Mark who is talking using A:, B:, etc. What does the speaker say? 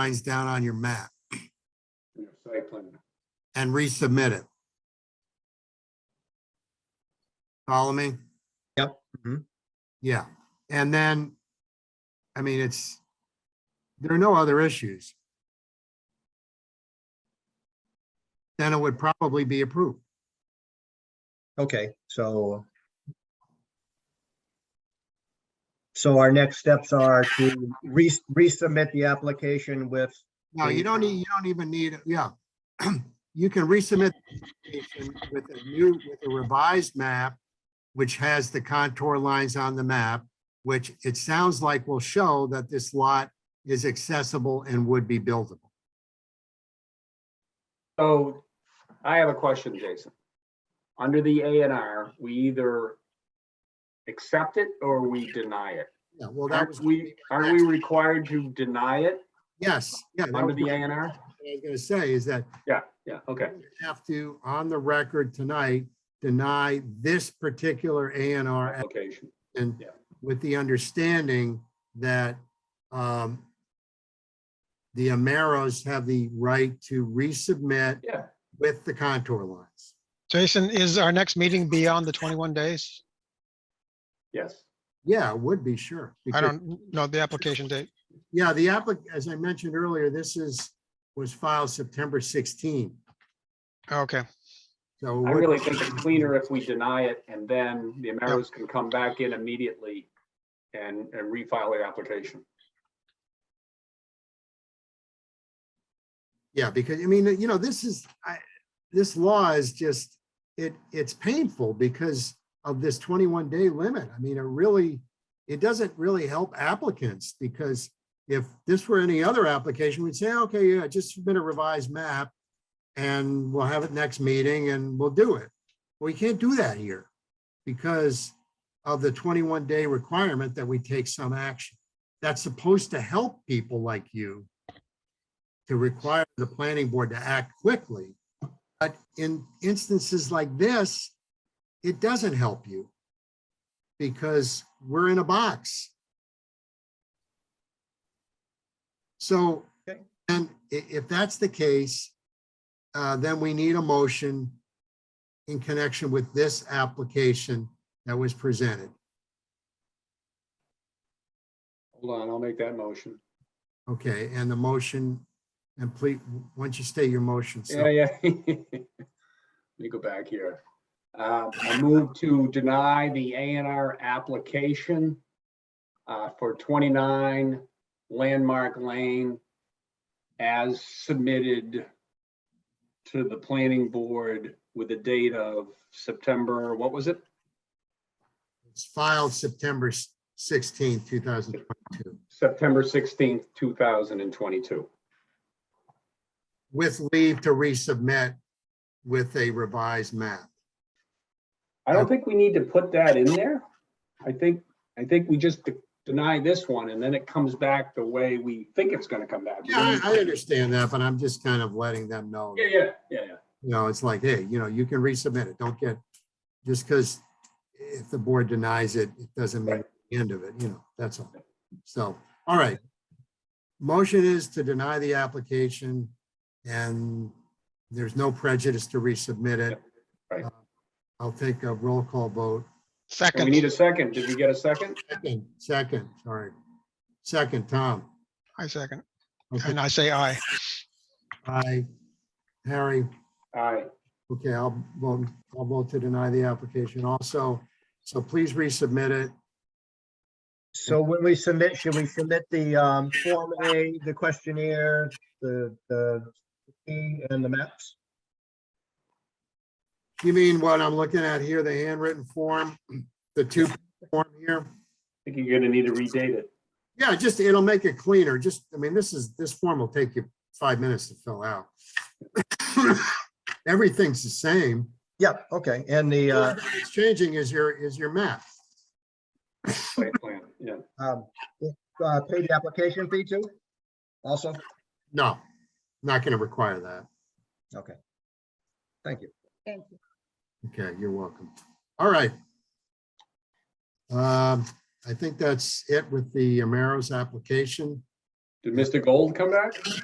A: lines down on your map
B: in your site plan.
A: and resubmit it. Follow me? Mm-hmm.
C: Yep, mhm.
A: Yeah, and then, I mean, it's, there are no other issues. Then it would probably be approved.
C: Okay, so. So our next steps are to re- resubmit the application with,
A: No, you don't need, you don't even need, yeah. You can resubmit the application with a new, with a revised map, which has the contour lines on the map, which it sounds like will show that this lot is accessible and would be buildable.
B: So I have a question, Jason. Under the A and R, we either accept it or we deny it.
A: Yeah, well, that
B: Aren't
A: was,
B: we, are we required to deny it
A: yes, yeah. that
B: under
A: was
B: the A
A: What
B: and R?
A: I was gonna say is that
B: Yeah, yeah, okay.
A: you have to, on the record tonight, deny this particular A and R
B: Application.
A: And
B: Yeah.
A: with the understanding that um, the Ameros have the right to resubmit
B: Yeah,
A: with the contour lines.
D: Jason, is our next meeting beyond the twenty-one days?
B: yes.
A: Yeah, would be sure.
D: I
A: because-
D: don't know the application date.
A: Yeah, the applicant, as I mentioned earlier, this is, was filed September 16.
D: Okay,
A: So. it
B: I
A: would-
B: really think it's cleaner if we deny it and then the Americans can come back in immediately and, and refile their application.
A: Yeah, because I mean, you know, this is, I, this law is just, it, it's painful because of this twenty-one day limit. I mean, it really, it doesn't really help applicants because if this were any other application, we'd say, okay, yeah, just submit a revised map and we'll have it next meeting and we'll do it. We can't do that here because of the twenty-one day requirement that we take some action. That's supposed to help people like you to require the planning board to act quickly. But in instances like this, it doesn't help you because we're in a box. So,
C: Okay.
A: and i- if that's the case, uh, then we need a motion in connection with this application that was presented.
B: Hold on, I'll make that motion.
A: Okay, and the motion, and please, once you state your motion,
B: Yeah,
A: so,
B: yeah. Let me go back here. Uh, I move to deny the A and R application uh, for 29 Landmark Lane as submitted to the planning board with a date of September, what was it?
A: it's filed September 16, 2022.
B: September 16th, 2022.
A: with leave to resubmit with a revised map.
B: I don't think we need to put that in there. I think, I think we just de- deny this one and then it comes back the way we think it's gonna come back.
A: Yeah, I, I understand that, but I'm just kind of letting them know,
B: Yeah,
A: you
B: yeah, yeah, yeah.
A: know, it's like, hey, you know, you can resubmit it. Don't get, just because if the board denies it, it doesn't mean the end of it, you know, that's all. So, all right. Motion is to deny the application and there's no prejudice to resubmit it. Uh,
B: Right.
A: I'll take a roll call vote.
B: And we need
D: second,
B: a second. Did we get a second?
A: Second, second, sorry. Second, Tom.
D: I second,
A: Okay.
D: and I say aye.
A: Aye. Harry,
B: All right,
A: okay, I'll vote, I'll vote to deny the application also. So please resubmit it.
C: so when we submit, should we submit the um, Form A, the questionnaire, the, the fee and the maps?
A: You mean what I'm looking at here, the handwritten form, the two form here?
B: I think you're gonna need to redate it.
A: Yeah, just, it'll make it cleaner. Just, I mean, this is, this form will take you five minutes to fill out. Everything's the same.
C: Yeah, okay, and the, uh,
A: What's changing is your, is your map.
B: Site plan, yeah.
C: um, uh, pay the application fee too? Also,
A: No, not going to require that.
C: okay. Thank you.
E: Thank you.
A: Okay, you're welcome. All right. Um, I think that's it with the Ameros application.
B: Did Mr. Gold come back?